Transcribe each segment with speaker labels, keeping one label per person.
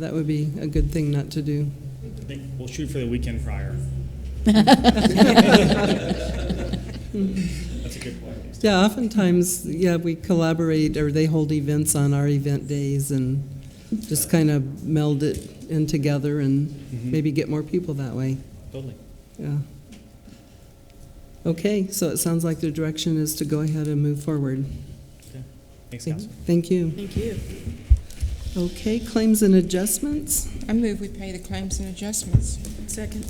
Speaker 1: That would be a good thing not to do.
Speaker 2: I think we'll shoot for the weekend prior. That's a good point.
Speaker 1: Yeah, oftentimes, yeah, we collaborate, or they hold events on our event days and just kind of meld it in together and maybe get more people that way,
Speaker 2: Totally.
Speaker 1: yeah. Okay, so it sounds like the direction is to go ahead and move forward.
Speaker 2: Okay. Thanks,
Speaker 1: Thank
Speaker 2: Council.
Speaker 1: thank you.
Speaker 3: Thank you.
Speaker 1: Okay, claims and adjustments.
Speaker 3: I move we pay the claims and adjustments. Second.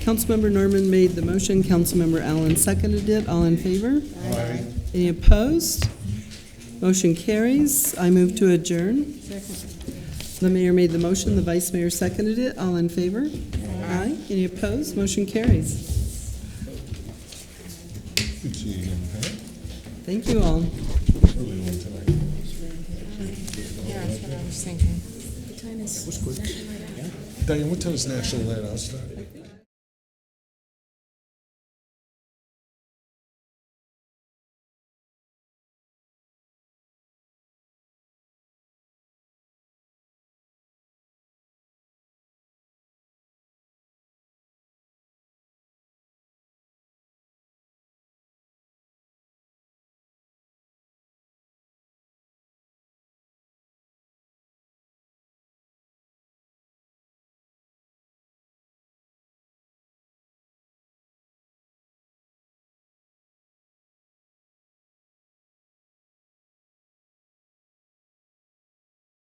Speaker 1: Councilmember Norman made the motion, Councilmember Allen seconded it, all in favor?
Speaker 3: Aye.
Speaker 1: Any opposed? Motion carries. I move to adjourn.
Speaker 3: Second.
Speaker 1: The mayor made the motion, the vice mayor seconded it. All in favor? Aye. Any opposed? Motion carries.
Speaker 4: Good seeing you, Pat.
Speaker 1: Thank you all.
Speaker 4: Really long time.
Speaker 3: Yeah, that's what I was thinking.
Speaker 4: Diane, what time is National Night Out start?